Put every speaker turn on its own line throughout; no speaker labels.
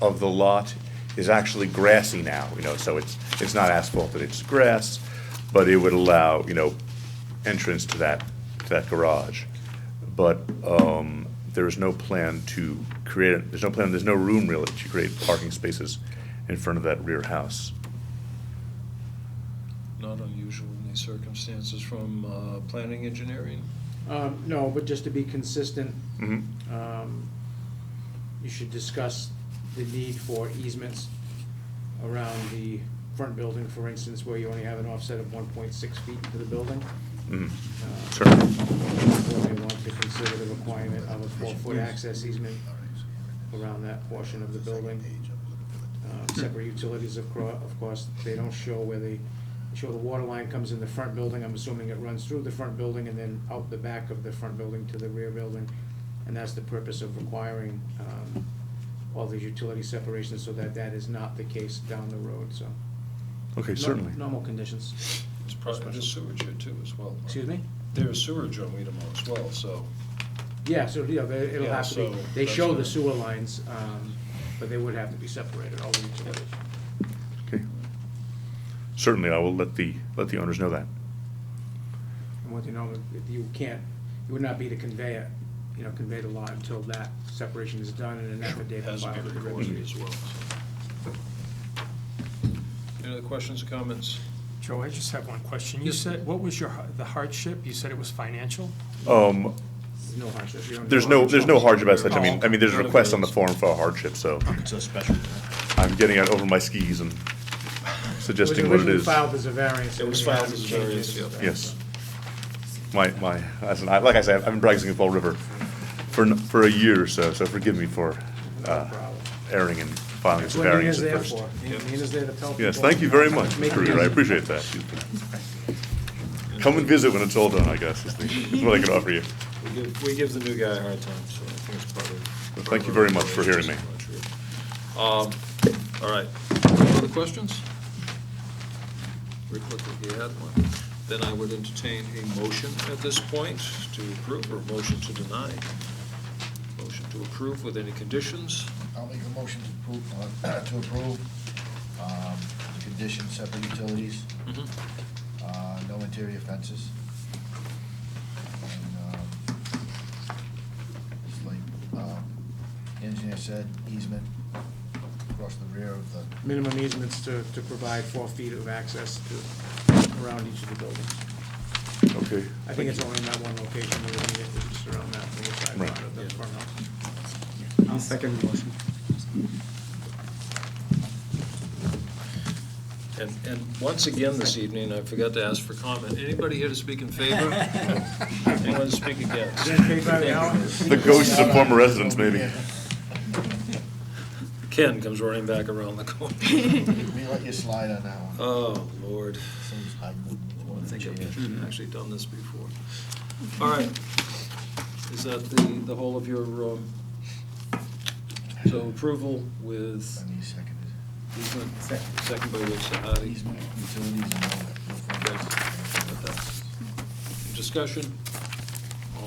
of the lot is actually grassy now, you know, so it's, it's not asphalted, it's grass, but it would allow, you know, entrance to that, to that garage. But um, there is no plan to create, there's no plan, there's no room really to create parking spaces in front of that rear house.
Not unusual in these circumstances from uh, planning engineering.
Um, no, but just to be consistent,
Mhm.
um, you should discuss the need for easements around the front building, for instance, where you only have an offset of one point six feet to the building.
Mhm.
Uh,
Sure.
Or they want to consider the requirement of a four-foot access easement around that portion of the building. Uh, Separate utilities, of cour- of course, they don't show where the, they show the water line comes in the front building, I'm assuming it runs through the front building and then out the back of the front building to the rear building. And that's the purpose of requiring, um, all these utility separations so that that is not the case down the road, so.
Okay,
Nor-
certainly.
Normal conditions,
It's probably there's sewage here too as well.
excuse me?
There's sewage on Weedamo as well, so
Yeah, so, yeah, they- it'll
Yeah,
have to be,
so
they
that's
show
a-
the sewer lines, um, but they would have to be separated, all the utilities.
Okay. Certainly, I will let the, let the owners know that.
And what you know, if you can't, it would not be to convey it, you know, convey the lot until that separation is done and an
it
affidavit
has to
filed
be
with the
recorded
registry.
as well. so. Any other questions or comments?
Joe, I just have one question. You said, what was your, har- the hardship? You said it was financial?
Um,
There's no hardship. You don't-
There's no, there's no hardship as such. I
Oh,
mean, I
okay.
mean, there's a
None of
request on the
those.
form for a hardship, so
It's a special.
I'm getting out over my skis and suggesting what it
originally
is.
filed as a variance.
It was
and then
filed
it
as a
changes.
variance, yeah.
Yes. My, my, as an- like I said, I've been practicing at Fall River for, n- for a year or so, so forgive me for
No
uh,
problem.
erring and filing as
That's
a
what
variance
Nina's
at
there
first.
for. Nina- Nina's there to tell people.
Yes, thank you very much,
Make it
Karina, I
easy.
appreciate that. Come and visit when it's all done, I guess, is the- is what I can offer you.
We give, we give the new guy a hard time, so I think it's part of.
Well, thank you very much for hearing me.
Um, all right, any other questions? Rick looked like he had one. Then I would entertain a motion at this point to approve or a motion to deny. Motion to approve with any conditions.
I'll make a motion to approve, uh, to approve, um, the condition, separate utilities, uh, no interior fences. And, um, it's like, um, the engineer said, easement across the rear of the,
Minimum easements to, to provide four feet of access to, around each of the buildings.
Okay.
I think it's only in that one location where we need it, it's just around that little side
Right.
lot of the front house.
I'll second the motion.
And, and once again this evening, I forgot to ask for comment. Anybody here to speak in favor? Anyone to speak against?
Is that paid by the hour?
The ghosts of former residents, maybe.
Ken comes running back around the corner.
we let you slide on that one.
Oh, Lord.
Seems I
I think I've actually done this before. All right. Is that the, the whole of your, um, so approval with
I need seconded.
easement, second by Rich Sahadi.
Easement, utilities and all that. no fences.
Discussion?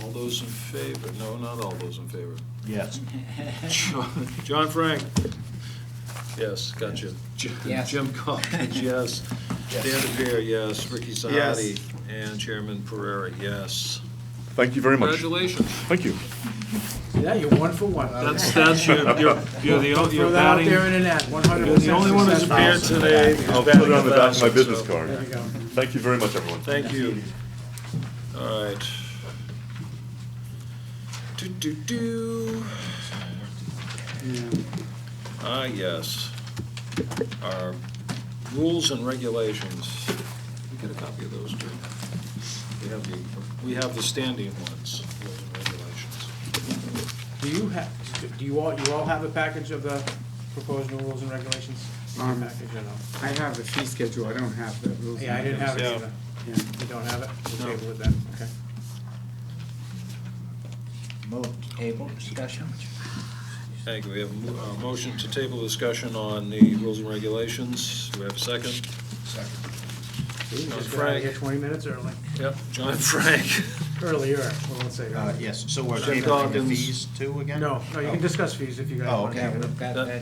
All those in favor? No, not all those in favor.
Yes.
John John Frank? Yes, gotcha. Jim-
Yes.
Jim Calkins, yes. Dan
Yes.
DePere, yes. Ricky Sahadi? And Chairman Pereira, yes.
Thank you very much.
Congratulations.
Thank you.
Yeah, you're one for one.
That's, that's your, you're, you're the, o-
Throw
you're
that out
batting,
there
you're
in an ad, one hundred percent
the only one who's appeared today.
I'll put it on the back of my business
So,
There you
card.
go.
Thank you very much, everyone.
Thank you. All right. Do, do, do. Ah, yes. Our rules and regulations. We get a copy of those, too. We have the, we have the standing ones, rules and regulations.
Do you have, do you all, you all have a package of the proposed new rules and regulations? Your
Um,
package or no?
I have the fee schedule, I don't have the rules. and
Yeah, I didn't have it
Yeah.
either.
regulations.
You don't have it? We'll
No.
table it then, okay.
Moved. Table discussion?
Thank you. We have a mo- a motion to table discussion on the rules and regulations. Do we have a second?
Second.
See, you
No,
Just got out of here
Frank.
twenty minutes early,
Yep. John Frank.
earlier, well, let's say.
Yes, so we're
Jim
tabling the
Dawkins.
fees too uh, again?
No, no, you can discuss fees if you guys
Oh,
want to.
okay.
Yeah, we've got
That-
that.